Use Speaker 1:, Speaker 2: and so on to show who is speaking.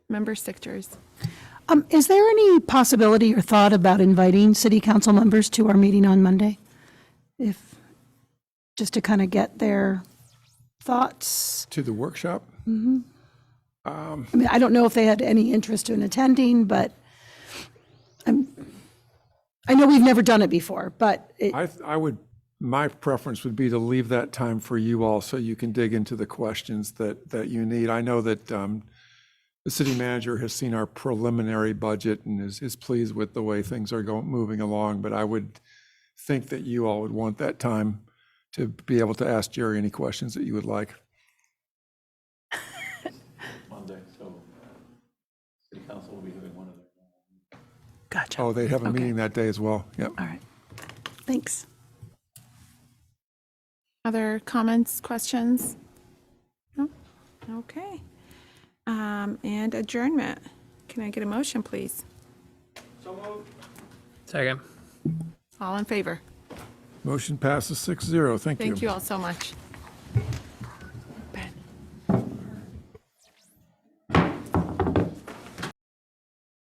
Speaker 1: Member Sichters.
Speaker 2: Um, Is there any possibility or thought about inviting city council members to our meeting on Monday? If, just to kind of get their thoughts?
Speaker 3: To the workshop?
Speaker 2: I mean, I don't know if they had any interest in attending, but I'm, I know we've never done it before, but it,
Speaker 3: I, I would, my preference would be to leave that time for you all so you can dig into the questions that, that you need. I know that um, the city manager has seen our preliminary budget and is, is pleased with the way things are going, moving along, but I would think that you all would want that time to be able to ask Jerry any questions that you would like.
Speaker 4: Monday, so uh, city council will be having one of their.
Speaker 2: gotcha,
Speaker 3: Oh, they have a meeting that day as well. Yep.
Speaker 2: all right. Thanks.
Speaker 1: Other comments, questions? No? Okay. Um, And adjournment. Can I get a motion, please?
Speaker 5: Second.
Speaker 1: All in favor?
Speaker 3: Motion passes six zero. Thank you.
Speaker 1: Thank you all so much.